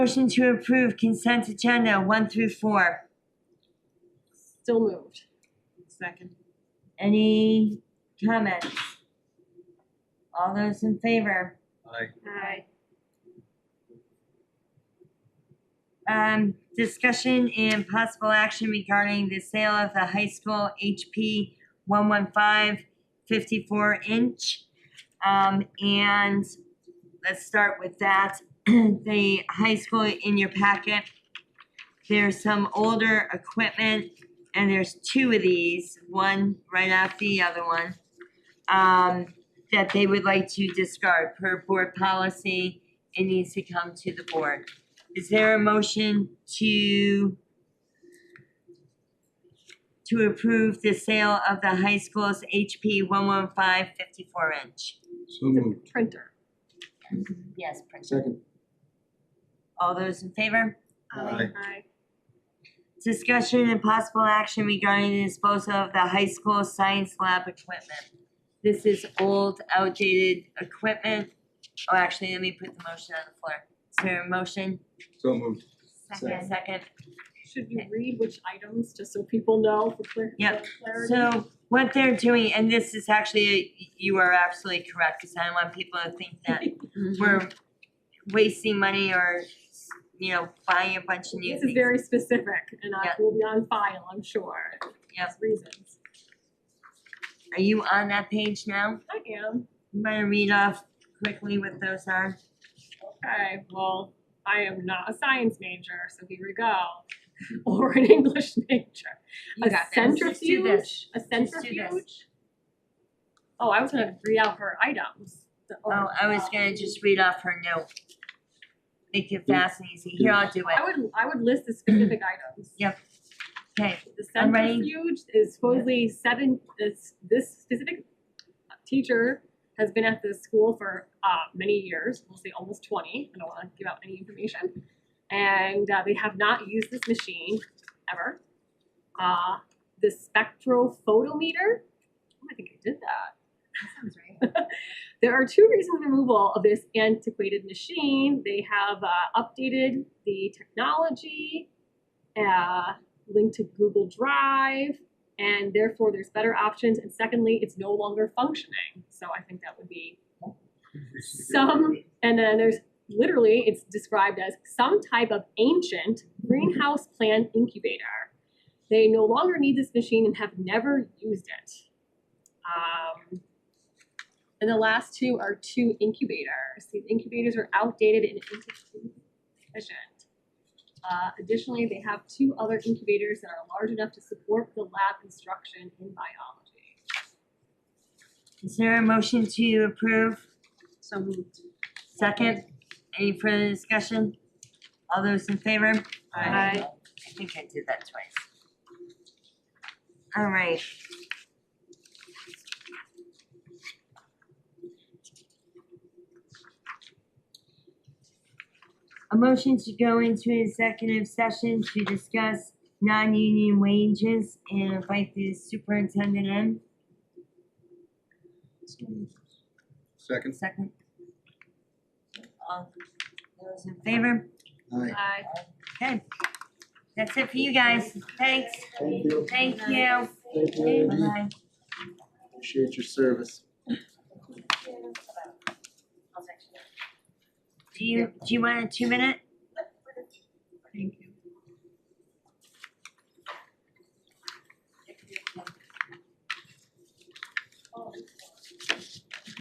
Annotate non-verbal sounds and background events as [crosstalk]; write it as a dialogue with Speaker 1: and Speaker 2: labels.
Speaker 1: Motion to approve consent agenda one through four.
Speaker 2: Still moved.
Speaker 3: Second.
Speaker 1: Any comments? All those in favor?
Speaker 4: Aye.
Speaker 2: Aye.
Speaker 1: Um, discussion and possible action regarding the sale of the high school HP 115 54 inch. Um, and let's start with that. [clears throat] The high school in your packet. There's some older equipment and there's two of these, one right after the other one. Um, that they would like to discard per board policy. It needs to come to the board. Is there a motion to to approve the sale of the high school's HP one one five fifty-four inch?
Speaker 4: So moved.
Speaker 2: Printer.
Speaker 1: Yes, Prince.
Speaker 4: Second.
Speaker 1: All those in favor?
Speaker 4: Aye.
Speaker 2: Aye.
Speaker 1: Discussion and possible action regarding the disposal of the high school science lab equipment. This is old outdated equipment. Oh, actually, let me put the motion on the floor. Is there a motion?
Speaker 4: So moved.
Speaker 1: Second. Second.
Speaker 2: Should we read which items, just so people know for clar- for
Speaker 1: Yep.
Speaker 2: clarity?
Speaker 1: So what they're doing, and this is actually, you are absolutely correct, because I don't want people to think that
Speaker 2: Mm-hmm.
Speaker 1: we're wasting money or, you know, buying a bunch of new
Speaker 2: This is
Speaker 1: things.
Speaker 2: very specific and I
Speaker 1: Yep.
Speaker 2: will be on file, I'm sure.
Speaker 1: Yep.
Speaker 2: There's Reasons.
Speaker 1: Are you on that page now?
Speaker 2: I am.
Speaker 1: I'm gonna read off quickly what those are.
Speaker 2: Okay, well, I am not a science major, so here we go. [laughs] Or an English major.
Speaker 1: You got
Speaker 2: A
Speaker 1: this. Let's do this.
Speaker 2: centrifuge, a
Speaker 1: Let's do
Speaker 2: centrifuge? Oh, I was gonna read out her items. the- or,
Speaker 1: Oh, I was
Speaker 2: uh,
Speaker 1: gonna just read off her note. Make it fast and easy. Here, I'll do
Speaker 2: I
Speaker 1: it.
Speaker 2: would, I would list the specific items.
Speaker 1: Okay,
Speaker 2: The
Speaker 1: I'm ready.
Speaker 2: centrifuge is supposedly seven, this, this specific teacher has been at this school for, uh, many years, we'll say almost twenty, I don't wanna give out any information. And, uh, they have not used this machine ever. Uh, the spectrophotometer, oh, I think I did that. That sounds right. [laughs] There are two reasons for removal of this antiquated machine, they have, uh, updated the technology, uh, linked to Google Drive, and therefore there's better options. And secondly, it's no longer functioning. So I think that would be some. And then there's literally, it's described as some type of ancient greenhouse plant incubator. They no longer need this machine and have never used it. Um, and the last two are two incubators. These incubators are outdated and inefficient. Uh, additionally, they have two other incubators that are large enough to support the lab instruction in biology.
Speaker 1: is there a motion to approve?
Speaker 3: So moved.
Speaker 1: Second, any further discussion? All those in favor?
Speaker 2: Aye.
Speaker 1: I think I did that twice. All right. A motion to go into executive session to discuss non-union wages and invite the superintendent in.
Speaker 4: Second.
Speaker 1: Second. All those in favor?
Speaker 4: Aye.
Speaker 2: Aye.
Speaker 1: Okay. That's it for you guys. Thanks.
Speaker 4: Thank you.
Speaker 1: Thank you.
Speaker 4: Thank
Speaker 1: Bye-bye.
Speaker 4: Appreciate your service.
Speaker 1: Do you, do you want a two minute? Thank